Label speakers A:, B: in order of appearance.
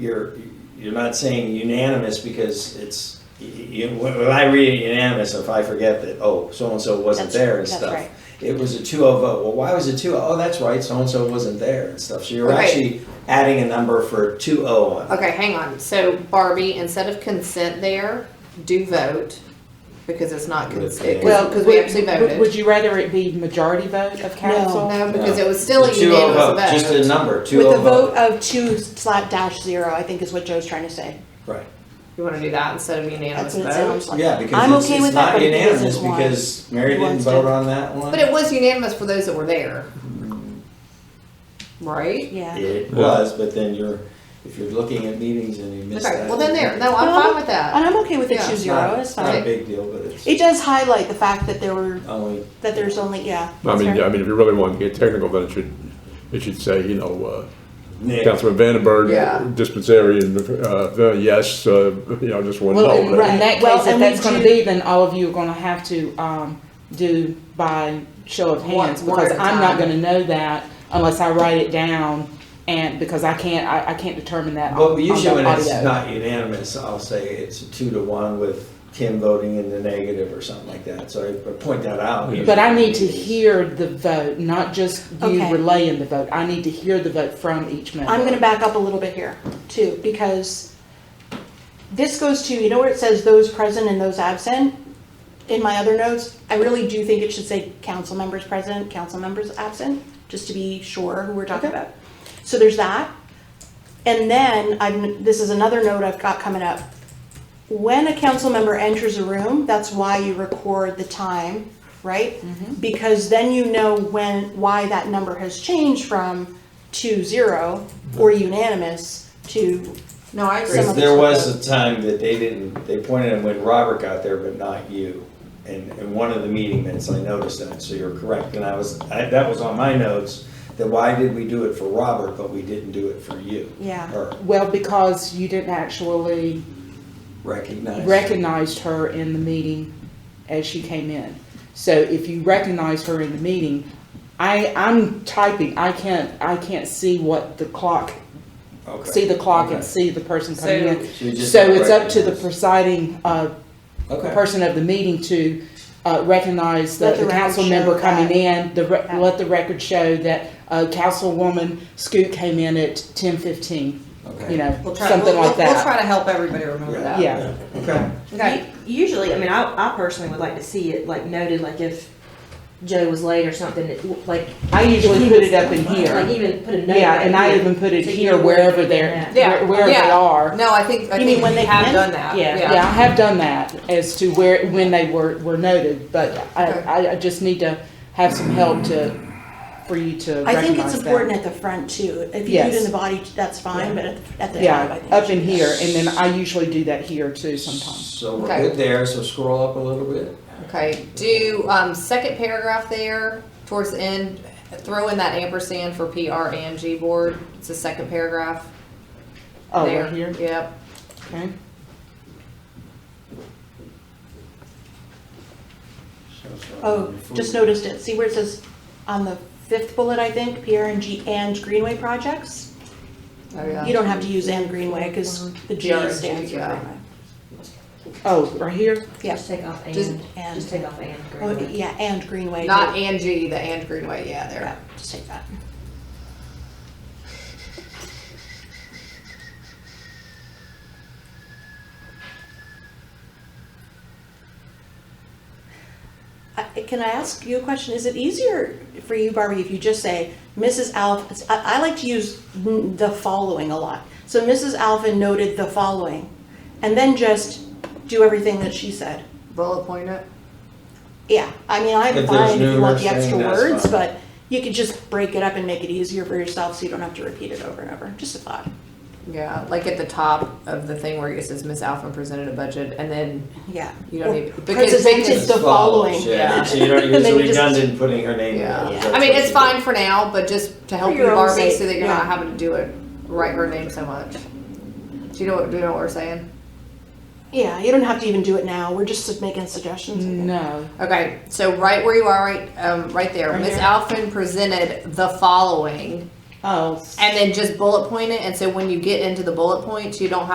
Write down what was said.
A: you're, you're not saying unanimous because it's, y- y- you, when when I read unanimous, if I forget that, oh, so-and-so wasn't
B: That's-
A: there and
B: that's
A: stuff.
B: right.
A: It was a two oh vote. Well, why was it two? Oh, that's right, so-and-so wasn't there and stuff. So you're
C: Right.
A: actually adding a number for two oh on.
C: Okay, hang on. So Barbie, instead of consent there, do vote, because it's not consent,
A: Well,
C: because we actually
D: would-
C: voted.
D: Would you rather it be majority vote of council?
C: No, because it was still a
A: Two oh vote,
C: unanimous
A: just a
C: vote.
A: number, two
B: With
A: oh
B: a vote
A: vote.
B: of two slot dash zero, I think is what Joe's trying to say.
A: Right.
C: You wanna do that instead of unanimous
B: That's what it
C: vote?
B: sounds like.
A: Yeah, because
B: I'm
A: it's,
B: okay
A: it's
B: with that,
A: not
B: but it is
A: unanimous
B: as one.
A: because Mary didn't
B: One's
A: vote
B: did.
A: on that one.
C: But it was unanimous for those that were there. Right?
B: Yeah.
A: It was, but then you're, if you're looking at meetings and you miss
C: Okay,
A: that.
C: well then there, no,
B: Well,
C: I'm fine with that.
B: And I'm okay with it
C: Yeah.
B: two
A: it's
B: zero,
A: not-
B: it's
A: Not a
B: fine.
A: big deal, but it's
B: It does highlight the fact that there were,
A: only.
B: that there's only, yeah.
E: I mean,
B: that's
E: yeah,
B: fair.
E: I mean, if you really want to get technical, then it should, it should say, you know, uh,
A: Nick.
E: Councilman
C: Yeah.
E: Vandenberg, dispensarian, uh, uh, yes, uh, you know, just one
D: Well, in
E: no.
D: in
B: Right.
D: that
B: Well,
D: case, if
B: and we
D: that's gonna
B: do-
D: be, then all of you are gonna have to, um, do by show of
C: One-
D: hands,
C: one at
D: because
C: a
D: I'm not
C: time.
D: gonna know that unless I write it down, and, because I can't, I, I can't determine that on
A: Well,
D: on the
A: usually when it's
D: audio.
A: not unanimous, I'll say it's a two to one with Kim voting in the negative or something like that, so I point that out.
D: But I need to hear the vote, not just you
B: Okay.
D: relaying the vote, I need to hear the vote from each member.
B: I'm gonna back up a little bit here too, because this goes to, you know where it says those present and those absent? In my other notes, I really do think it should say council members present, council members absent, just to be sure who we're talking about. So there's that. And then I'm, this is another note I've got coming up. When a council member enters a room, that's why you record the time, right? Because then you know when, why that number has changed from two zero or unanimous to,
C: No, I agree.
B: Some
A: Because
B: of
A: there
B: us-
A: was a time that they didn't, they pointed them when Robert got there, but not you. And, and one of the meeting minutes, I noticed that, so you're correct, and I was, I, that was on my notes, that why did we do it for Robert, but we didn't do it for you?
B: Yeah.
A: Or
D: Well, because you didn't actually
A: recognize.
D: recognized her in the meeting as she came in. So if you recognized her in the meeting, I, I'm typing, I can't, I can't see what the clock,
A: Okay.
D: see the clock and
A: Okay.
D: see the person coming
C: So-
D: in.
A: So you just
D: So it's up to the
A: recognize.
D: presiding, uh,
A: Okay.
D: person of the meeting to, uh, recognize the,
B: Let the
D: the council
B: record show
D: member coming
B: that.
D: in. The, re-
B: That.
D: let the record show that, uh, Councilwoman Scoot came in at ten fifteen,
A: Okay.
D: you know,
C: We'll try-
D: something
C: we'll-
D: like
C: we'll- We'll
D: that.
C: try to help everybody remember that.
D: Yeah.
A: Okay.
C: Okay,
F: Usually, I mean, I, I personally would like to see it like noted, like if Joe was late or something, it- like.
D: I usually put it up in here.
F: Like even put a note.
D: Yeah,
F: right
D: and I
F: here.
D: even put it
F: So you
D: here
F: know where
D: wherever
F: they're
D: they're,
F: at.
C: Yeah,
D: where- wherever they
C: yeah.
D: are.
C: no, I think, I
B: You mean
C: think
B: when
C: we
B: they
C: have
B: come in?
C: done that,
F: Yeah.
D: Yeah, I have done that as to where, when they were, were noted, but I,
C: Okay.
D: I, I just need to have some help to, for you to
B: I think it's
D: recognize that.
B: important at the front too. If you do it in
D: Yes.
B: the body, that's fine, but at, the- at the top, I
D: Yeah,
B: think.
D: up
B: it
D: in
B: should be.
D: here, and then I usually do that here too sometimes.
A: So we're
C: Okay.
A: good there, so scroll up a little bit.
C: Okay, do, um, second paragraph there, towards the end, throw in that ampersand for PR and G board, it's the second paragraph.
D: Oh,
C: there.
D: right here,
C: Yep,
D: okay.
B: Oh, just noticed it. See where it says on the fifth bullet, I think, PRNG and Greenway projects?
C: oh, yeah.
B: You don't have to use and Greenway because the G
C: PRNG,
B: stands for
C: yeah.
B: Greenway.
D: Oh, right here,
B: Yeah.
F: Just take off and,
C: Just-
B: and.
F: just take off and.
B: Oh,
F: Greenwood.
B: yeah, and Greenway.
C: Not and G, the and Greenway,
B: Yeah,
C: yeah, there.
B: Just take that. I- Can I ask you a question? Is it easier for you, Barbie, if you just say, Mrs. Alf, I, I like to use n- the following a lot. So Mrs. Alvin noted the following, and then just do everything that she said.
C: Bullet point it.
B: Yeah, I mean, I'm
A: If there's
B: fine if you want the
A: numerous
B: extra
A: thing, that's
B: words,
A: fine.
B: but you could just break it up and make it easier for yourself so you don't have to repeat it over and over. Just a thought.
C: Yeah, like at the top of the thing where it says Miss Alphen presented a budget, and then
B: Yeah.
C: You don't
B: Or
C: need- because-
B: Presented
C: because-
B: the following.
A: Yeah,
C: Yeah.
A: so you don't
B: And
A: use
B: then
A: the
B: you just-
A: redundant putting her name in.
C: Yeah,
A: there.
C: I mean, it's fine for now, but just to help
B: For
C: you,
B: your own
C: Barbie, so
B: sake,
C: that you're not
B: yeah.
C: having to do it, write her name so much. Do you know what, do you know what we're saying?
B: Yeah, you don't have to even do it now. We're just making suggestions.
D: no,
C: Okay, so right where you are, right, um, right there,
D: Right
C: Miss
D: here.
C: Alphen presented the following,
D: Oh,
C: And then just bullet point it, and so when you get into the bullet points, you don't have